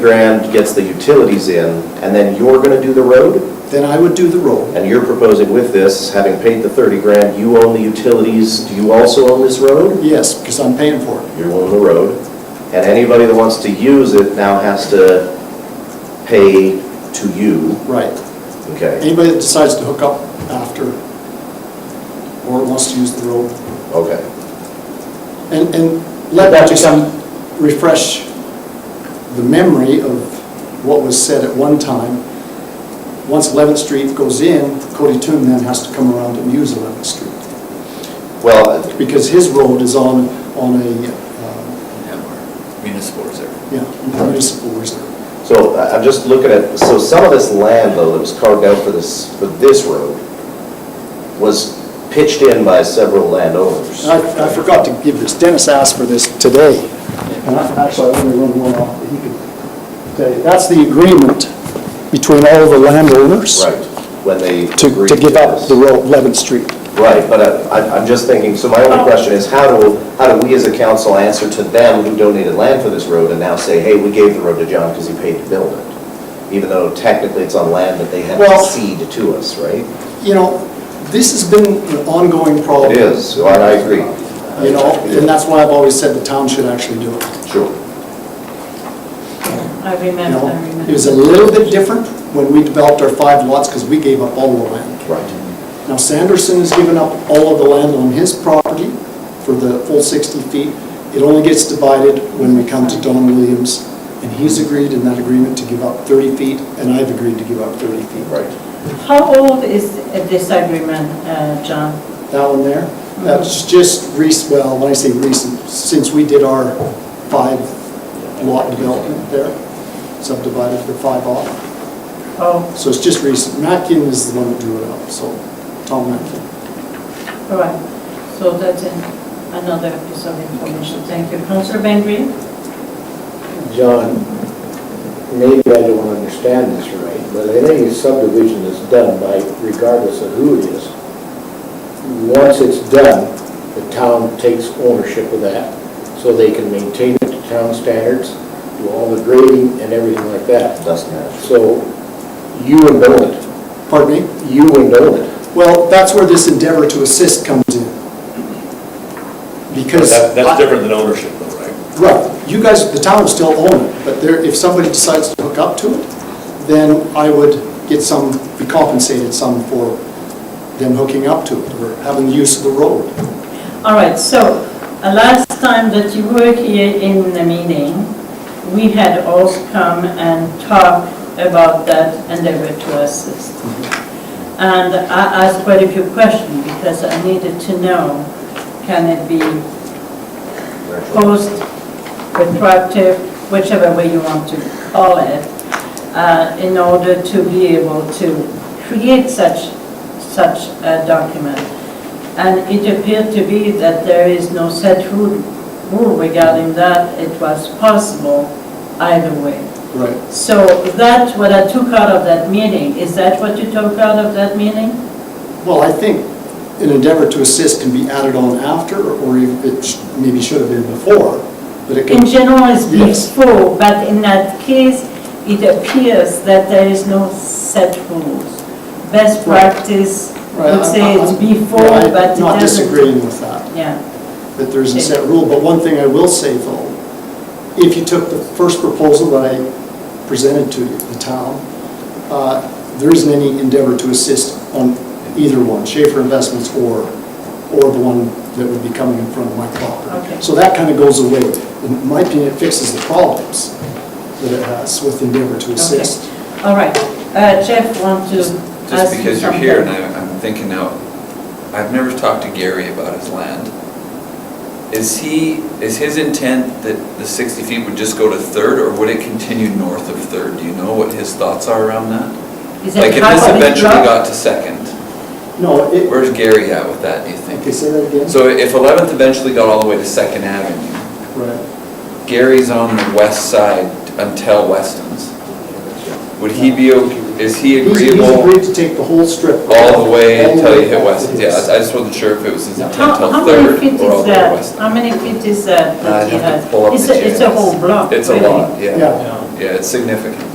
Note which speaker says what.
Speaker 1: grand gets the utilities in, and then you're gonna do the road?
Speaker 2: Then I would do the roll.
Speaker 1: And you're proposing with this, having paid the 30 grand, you own the utilities, do you also own this road?
Speaker 2: Yes, because I'm paying for it.
Speaker 1: You own the road, and anybody that wants to use it now has to pay to you,
Speaker 2: Right.
Speaker 1: okay?
Speaker 2: Anybody that decides to hook up after or wants to use the road.
Speaker 1: Okay,
Speaker 2: And, and let that just refresh the memory of what was said at one time. Once 11th Street goes in, Cody Toon then has to come around and use 11th Street.
Speaker 1: well,
Speaker 2: Because his road is on, on a, uh,
Speaker 3: have our municipal reserve.
Speaker 2: yeah, municipal reserve.
Speaker 1: so I- I'm just looking at, so some of this land though that was carved out for this, for this road was pitched in by several landowners.
Speaker 2: And I, I forgot to give this, Dennis asked for this today, and I- actually, I only wrote one off, but he could tell you. That's the agreement between all the landowners
Speaker 1: Right, when they
Speaker 2: to,
Speaker 1: agreed
Speaker 2: to give up
Speaker 1: this.
Speaker 2: the road, 11th Street.
Speaker 1: Right, but I- I- I'm just thinking, so my only question is, how do, how do we as a council answer to them who donated land for this road and now say, hey, we gave the road to John because he paid to build it? Even though technically it's on land that they had to
Speaker 2: Well-
Speaker 1: cede to us, right?
Speaker 2: You know, this has been an ongoing problem.
Speaker 1: It is, so I I agree.
Speaker 2: You know, and that's why I've always said the town should actually do it.
Speaker 1: Sure.
Speaker 4: I
Speaker 2: You
Speaker 4: remember, I
Speaker 2: know,
Speaker 4: remember.
Speaker 2: it was a little bit different when we developed our five lots, because we gave up all the land.
Speaker 1: Right.
Speaker 2: Now Sanderson has given up all of the land on his property for the full 60 feet. It only gets divided when we come to Don Williams, and he's agreed in that agreement to give up 30 feet, and I've agreed to give up 30 feet.
Speaker 1: Right.
Speaker 4: How old is this agreement, uh, John?
Speaker 2: That one there, that's just recent, well, when I say recent, since we did our five lot development there, subdivided the five off.
Speaker 4: Oh,
Speaker 2: So it's just recent. Mackin is the one that drew it up, so Tom Mackin.
Speaker 4: all right. So that's an- another piece of information. Thank you. Councilor Bengry?
Speaker 5: John, maybe I don't understand this right, but I think a subdivision is done by, regardless of who it is. Once it's done, the town takes ownership of that, so they can maintain it to town standards, do all the grading and everything like that.
Speaker 1: Doesn't matter.
Speaker 5: So you own it,
Speaker 2: Pardon me?
Speaker 5: you own it.
Speaker 2: Well, that's where this endeavor to assist comes in. Because.
Speaker 6: That- That's different than ownership though, right?
Speaker 2: Right, you guys, the town will still own it, but there, if somebody decides to hook up to it, then I would get some, be compensated some for them hooking up to it or having the use of the road.
Speaker 4: All right, so uh, last time that you were here in the meeting, we had also come and talked about that endeavor to assist.
Speaker 2: Mm-hmm.
Speaker 4: And I asked quite a few questions because I needed to know, can it be post, retroactive, whichever way you want to call it, uh, in order to be able to create such, such a document. And it appeared to be that there is no set rule rule regarding that. It was possible either way.
Speaker 2: Right.
Speaker 4: So that's what I took out of that meeting. Is that what you took out of that meeting?
Speaker 2: Well, I think an endeavor to assist can be added on after, or if it sh- maybe should have been before, but it
Speaker 4: In
Speaker 2: can,
Speaker 4: general, it's
Speaker 2: Yes.
Speaker 4: before, but in that case, it appears that there is no set rules. Best
Speaker 2: Right.
Speaker 4: practice
Speaker 2: Right,
Speaker 4: would say it's
Speaker 2: I'm-
Speaker 4: before,
Speaker 2: Yeah, I'm
Speaker 4: but it doesn't.
Speaker 2: Not disagreeing with that.
Speaker 4: Yeah,
Speaker 2: that there isn't a set rule, but one thing I will say though, if you took the first proposal that I presented to the town, uh, there isn't any endeavor to assist on either one, Schaefer Investments or, or the one that would be coming in front of my
Speaker 4: Okay.
Speaker 2: property. So that kind of goes away. In my opinion, it fixes the problems that it has with endeavor to assist.
Speaker 4: all right. Uh, Jeff, want to ask
Speaker 3: Just
Speaker 4: you
Speaker 3: just because you're here, and
Speaker 4: something?
Speaker 3: I- I'm thinking now, I've never talked to Gary about his land. Is he, is his intent that the 60 feet would just go to Third, or would it continue north of Third? Do you know what his thoughts are around that?
Speaker 4: Is
Speaker 3: Like,
Speaker 4: it
Speaker 3: if
Speaker 4: half
Speaker 3: this
Speaker 4: of each
Speaker 3: eventually
Speaker 4: block?
Speaker 3: got to Second,
Speaker 2: No, it,
Speaker 3: where's Gary at with that, do you think?
Speaker 2: okay, say that again.
Speaker 3: So if 11th eventually got all the way to Second Avenue,
Speaker 2: Right.
Speaker 3: Gary's on the west side until Weston's. Would he be, ok- is he
Speaker 2: He's- He's
Speaker 3: agreeable
Speaker 2: agreed to take the whole strip.
Speaker 3: all the way
Speaker 2: all the
Speaker 3: until you
Speaker 2: back
Speaker 3: hit
Speaker 2: to
Speaker 3: Weston's? Yeah,
Speaker 2: his-
Speaker 3: I just wasn't sure if it was his intent
Speaker 4: How,
Speaker 3: till
Speaker 4: how many
Speaker 3: Third
Speaker 4: feet
Speaker 3: or all
Speaker 4: is
Speaker 3: the way to
Speaker 4: that?
Speaker 3: Weston.
Speaker 4: How many feet is that
Speaker 3: I'd
Speaker 4: that he
Speaker 3: have to
Speaker 4: has?
Speaker 3: pull up
Speaker 4: It's
Speaker 3: the
Speaker 4: a, it's a
Speaker 3: GIS.
Speaker 4: whole block.
Speaker 3: It's a
Speaker 4: really.
Speaker 3: lot, yeah.
Speaker 2: Yeah.
Speaker 6: Yeah.
Speaker 3: Yeah, it's significant.